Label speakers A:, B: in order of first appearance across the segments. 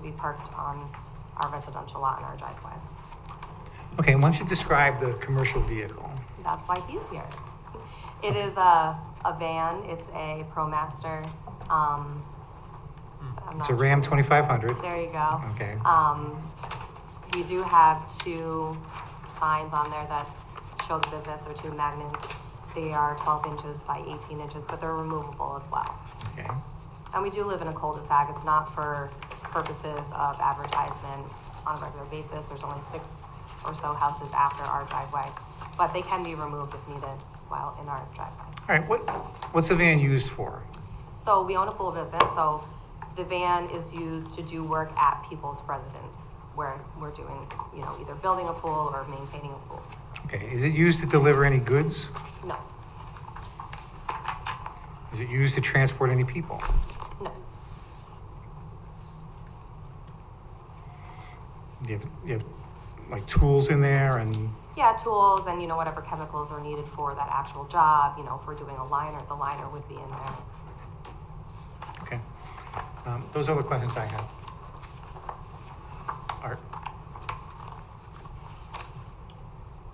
A: be parked on our residential lot in our driveway.
B: Okay, why don't you describe the commercial vehicle?
A: That's why he's here. It is a, a van, it's a ProMaster, um. I'm
B: It's a
A: not
B: Ram
A: sure.
B: 2500.
A: There you go.
B: Okay.
A: Um, we do have two signs on there that show the business, they're two magnets. They are twelve inches by eighteen inches, but they're removable as well.
B: Okay.
A: And we do live in a cul-de-sac, it's not for purposes of advertisement on a regular basis, there's only six or so houses after our driveway. But they can be removed if needed while in our driveway.
B: All right, what, what's the van used for?
A: So we own a pool business, so the van is used to do work at people's residence where we're doing, you know, either building a pool or maintaining a pool.
B: Okay, is it used to deliver any goods?
A: No,
B: Is it used to transport any people?
A: no,
B: Do you have, you have like tools in there and,
A: yeah, tools and, you know, whatever chemicals are needed for that actual job, you know, if we're doing a liner, the liner would be in there.
B: okay. Um, Those are the questions I have. Art,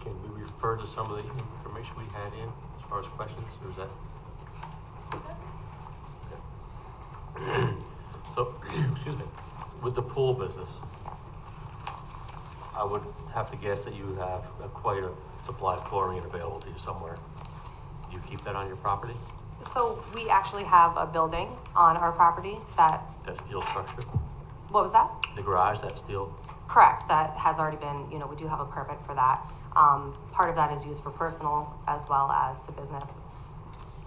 C: Can we refer to some of the information we had in as far as questions, or is that? Okay. So, excuse me, with the pool business,
A: Yes,
C: I would have to guess that you have a- quite a supply of chlorine available to you somewhere. Do you keep that on your property,
A: so we actually have a building on our property that,
C: that steel structure?
A: what was that?
C: The garage, that steel,
A: Correct, that has already been, you know, we do have a permit for that. Um, part of that is used for personal as well as the business.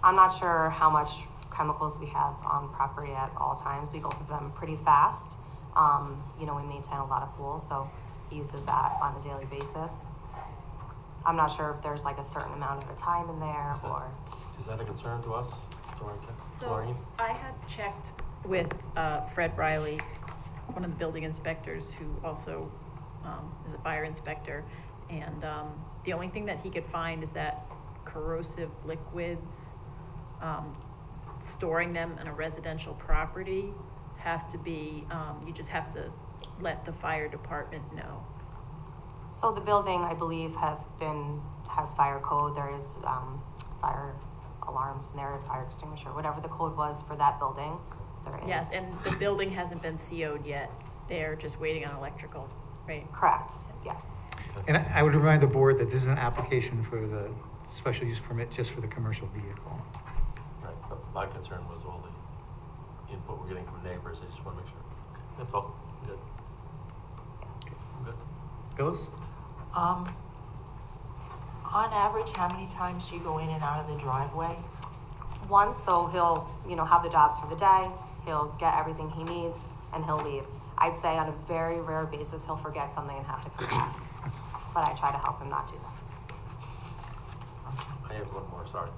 A: I'm not sure how much chemicals we have on property at all times. We go through them pretty fast. Um, you know, we maintain a lot of pools, so he uses that on a daily basis. I'm not sure if there's like a certain amount of a time in there
C: Is that-
A: or,
C: is that a concern to us, chlorine?
D: So
C: chlorine?
D: I had checked with uh, Fred Riley, one of the building inspectors who also um, is a fire inspector. And um, the only thing that he could find is that corrosive liquids, um, storing them in a residential property have to be, um, you just have to let the fire department know.
A: so the building, I believe, has been, has fire code. There is, um, fire alarms in there, fire extinguisher, whatever the code was for that building, there is.
D: Yes, and the building hasn't been CO'd yet. They're just waiting on electrical, right?
A: Correct, yes.
B: and I I would remind the board that this is an application for the special use permit just for the commercial vehicle.
C: Right, but my concern was all the input we're getting from neighbors, I just wanna make sure. That's all, good,
A: yes.
C: good.
B: Phyllis?
E: Um, on average, how many times do you go in and out of the driveway?
A: One, so he'll, you know, have the jobs for the day, he'll get everything he needs, and he'll leave. I'd say on a very rare basis, he'll forget something and have to come back. But I try to help him not do that.
C: I have one more, sorry.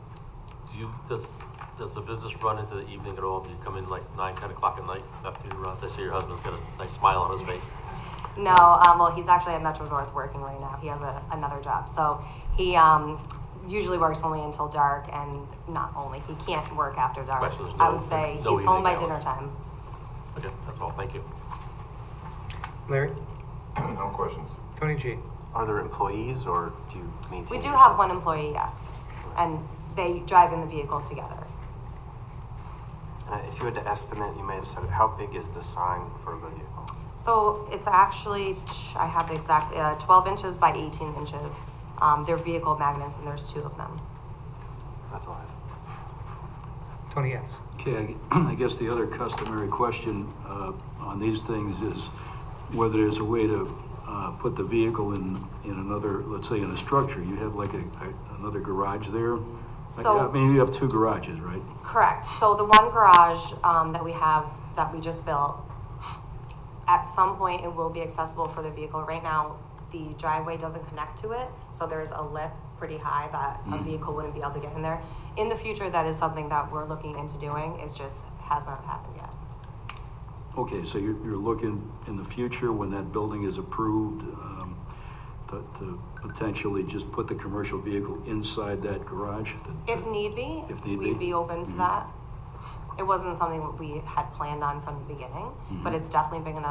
C: Do you, does, does the business run into the evening at all? Do you come in like nine, ten o'clock at night after your runs? I see your husband's got a nice smile on his face.
A: No, um, well, he's actually at Metro North working right now. He has a, another job, so he, um, usually works only until dark, and not only, he can't work after dark.
C: Right, so there's
A: I
C: no-
A: would say
C: no
A: he's home by
C: evening hour.
A: dinner time.
C: Okay, that's all, thank you.
B: Larry?
F: No questions.
B: Tony G?
G: Are there employees or do you maintain?
A: We do
G: yourself?
A: have one employee, yes, and they drive in the vehicle together.
G: Uh, If you had to estimate, you may have said it, how big is the sign for the vehicle?
A: So it's actually, I have the exact, uh, 12 inches by 18 inches. Um, they're vehicle magnets, and there's two of them.
G: That's all I have.
B: Tony S?
H: Okay, I gue- I guess the other customary question uh, on these things is whether there's a way to uh, put the vehicle in, in another, let's say in a structure. You have like a, a- another garage there? I-
A: So-
H: I mean, you have two garages, right?
A: Correct. So the one garage um, that we have, that we just built, at some point, it will be accessible for the vehicle. Right now, the driveway doesn't connect to it, so there's a lip pretty high that
H: Mm.
A: a vehicle wouldn't be able to get in there. In the future, that is something that we're looking into doing. It just hasn't happened yet.
H: Okay, so you're, you're looking in the future, when that building is approved, um, to to potentially just put the commercial vehicle inside that garage?
A: If need be,
H: If need
A: we'd
H: be. Mm.
A: be open
H: Mm-hmm.
A: to that. It wasn't something that we had planned on from the beginning, but it's definitely big enough